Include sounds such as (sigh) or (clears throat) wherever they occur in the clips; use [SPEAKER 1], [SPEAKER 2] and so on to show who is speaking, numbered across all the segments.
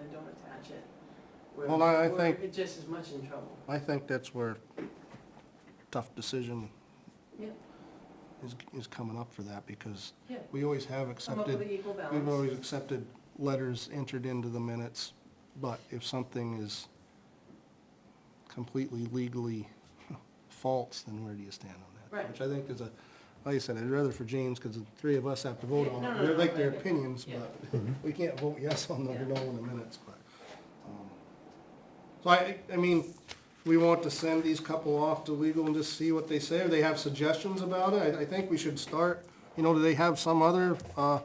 [SPEAKER 1] touch it, we're,
[SPEAKER 2] Well, I- I
[SPEAKER 1] we're
[SPEAKER 2] think-
[SPEAKER 1] just as much in trouble.
[SPEAKER 2] I think that's where tough decision
[SPEAKER 1] Yeah,
[SPEAKER 2] is, is coming up for that, because
[SPEAKER 1] yeah.
[SPEAKER 2] we always have
[SPEAKER 1] Come up with
[SPEAKER 2] accepted,
[SPEAKER 1] an equal
[SPEAKER 2] we've
[SPEAKER 1] balance.
[SPEAKER 2] always accepted letters entered into the minutes, but if something is completely legally false, then where do you stand on that?
[SPEAKER 1] Right.
[SPEAKER 2] Which I think is a, like I said, I'd rather for James, because the three of us have to vote
[SPEAKER 1] Yeah,
[SPEAKER 2] on
[SPEAKER 1] no,
[SPEAKER 2] it.
[SPEAKER 1] no,
[SPEAKER 2] We
[SPEAKER 1] no,
[SPEAKER 2] like their
[SPEAKER 1] I-
[SPEAKER 2] opinions,
[SPEAKER 1] yeah.
[SPEAKER 2] but we can't vote yes on them or no
[SPEAKER 1] Yeah.
[SPEAKER 2] in the minutes, but. um, So I, I mean, we want to send these couple off to legal and just see what they say, or they have suggestions about it. I, I think we should start, you know, do they have some other, uh,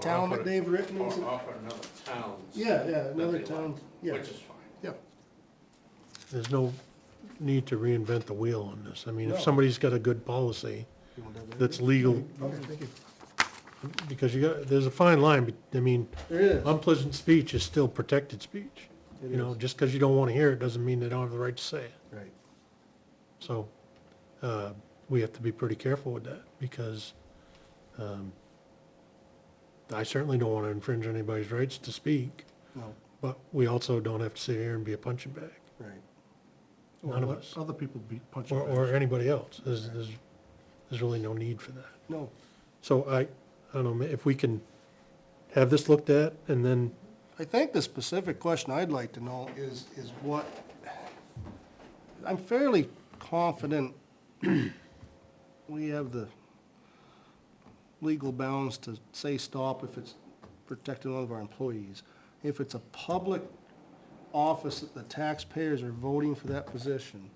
[SPEAKER 2] town that they've written?
[SPEAKER 3] Or
[SPEAKER 2] and said-
[SPEAKER 3] offer another town.
[SPEAKER 2] Yeah, yeah,
[SPEAKER 3] that
[SPEAKER 2] another
[SPEAKER 3] they
[SPEAKER 2] town,
[SPEAKER 3] like,
[SPEAKER 2] yeah,
[SPEAKER 3] Which is fine.
[SPEAKER 2] yeah.
[SPEAKER 4] There's no need to reinvent the wheel on this. I mean,
[SPEAKER 2] No.
[SPEAKER 4] if somebody's got a good policy
[SPEAKER 2] You want to have that?
[SPEAKER 4] that's legal,
[SPEAKER 2] Okay, thank you.
[SPEAKER 4] because you got, there's a fine line, but, I mean,
[SPEAKER 2] There is.
[SPEAKER 4] unpleasant speech is still protected speech.
[SPEAKER 2] It
[SPEAKER 4] You know,
[SPEAKER 2] is.
[SPEAKER 4] just because you don't want to hear it doesn't mean they don't have the right to say it.
[SPEAKER 2] Right.
[SPEAKER 4] So, uh, we have to be pretty careful with that because, um, I certainly don't want to infringe anybody's rights to speak,
[SPEAKER 2] No,
[SPEAKER 4] but we also don't have to sit here and be a punching bag.
[SPEAKER 2] right.
[SPEAKER 4] None of us.
[SPEAKER 5] Other people beat punching
[SPEAKER 4] Or,
[SPEAKER 5] bags.
[SPEAKER 4] or anybody else. There's, there's, there's really no need for that.
[SPEAKER 2] No,
[SPEAKER 4] So I, I don't know, if we can have this looked at and then,
[SPEAKER 2] I think the specific question I'd like to know is, is what, I'm fairly confident (clears throat) we have the legal bounds to say stop if it's protecting one of our employees. If it's a public office that the taxpayers are voting for that position,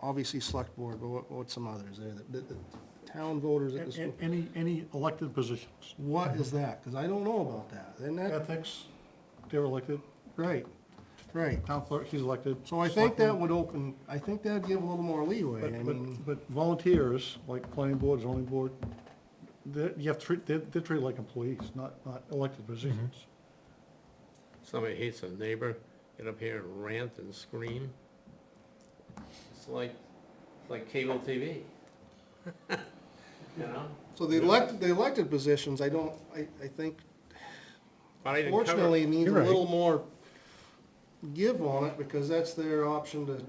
[SPEAKER 2] obviously select board, but what, what's some others there? The, the the town voters at the
[SPEAKER 5] A-
[SPEAKER 2] school,
[SPEAKER 5] a- Any, any elected positions,
[SPEAKER 2] what is that? Because I don't know about that. And that,
[SPEAKER 5] ethics, they're elected,
[SPEAKER 2] right, right.
[SPEAKER 5] town clerk, he's elected.
[SPEAKER 2] So I think that
[SPEAKER 5] selectmen.
[SPEAKER 2] would open, I think that'd give a little more leeway, I
[SPEAKER 5] But-
[SPEAKER 2] mean,
[SPEAKER 5] But, but volunteers, like planning board, zoning board, they're, you have to treat, they're, they're treated like employees, not, not elected positions.
[SPEAKER 4] Mm-hmm.
[SPEAKER 3] Somebody hates a neighbor, get up here and rant and scream. It's like, it's like cable TV. (laughs) You know?
[SPEAKER 2] so the elected, the elected positions, I don't, I, I think
[SPEAKER 3] But I didn't cover-
[SPEAKER 2] fortunately needs a
[SPEAKER 4] You're right.
[SPEAKER 2] little more give on it, because that's their option to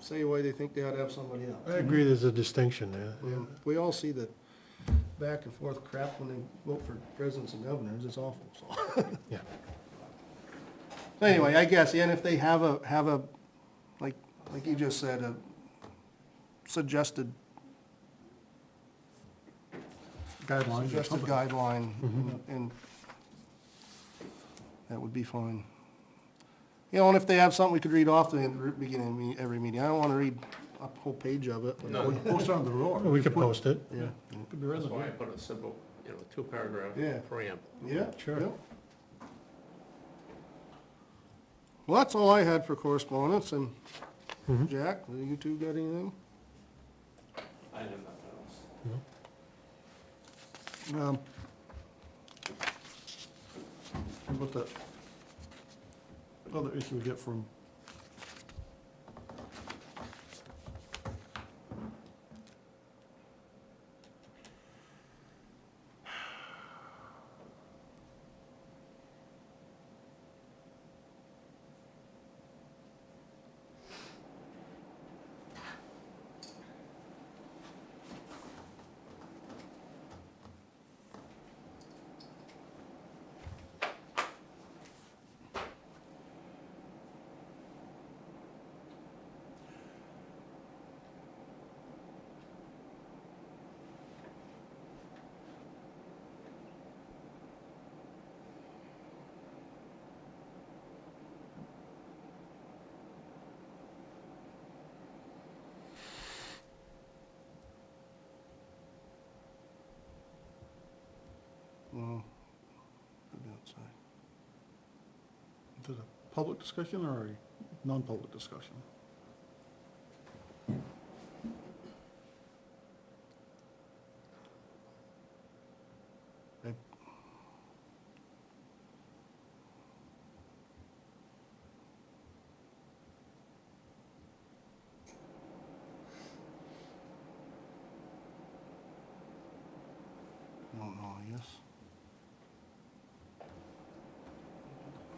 [SPEAKER 2] say why they think they ought to have somebody
[SPEAKER 4] I
[SPEAKER 2] else.
[SPEAKER 4] agree there's a distinction there.
[SPEAKER 5] Mm-hmm.
[SPEAKER 2] And We all see the back and forth crap when they vote for presidents and governors, it's awful, so. (laughs)
[SPEAKER 4] Yeah.
[SPEAKER 2] Anyway, I guess, and if they have a, have a, like, like you just said, a suggested
[SPEAKER 5] Guidelines or
[SPEAKER 2] suggested
[SPEAKER 5] something.
[SPEAKER 2] guideline,
[SPEAKER 5] Mm-hmm.
[SPEAKER 2] and- and that would be fine. You know, and if they have something we could read off the re- beginning of me- every meeting, I don't wanna read a whole page of it. but-
[SPEAKER 3] No.
[SPEAKER 5] Post on the door.
[SPEAKER 4] We could post it.
[SPEAKER 2] Yeah,
[SPEAKER 5] Could be written
[SPEAKER 3] That's why I
[SPEAKER 5] there.
[SPEAKER 3] put a simple, you know, two paragraph
[SPEAKER 2] Yeah.
[SPEAKER 3] preamble.
[SPEAKER 2] yeah.
[SPEAKER 4] Sure.
[SPEAKER 2] yeah. Well, that's all I had for correspondence, and
[SPEAKER 5] Mm-hmm.
[SPEAKER 4] Mhm.
[SPEAKER 2] Jack, you two got anything?
[SPEAKER 3] I have nothing else.
[SPEAKER 2] Um,
[SPEAKER 5] How about that other issue we get from
[SPEAKER 2] well, I'll be outside.
[SPEAKER 5] Is it a public discussion or a non-public discussion?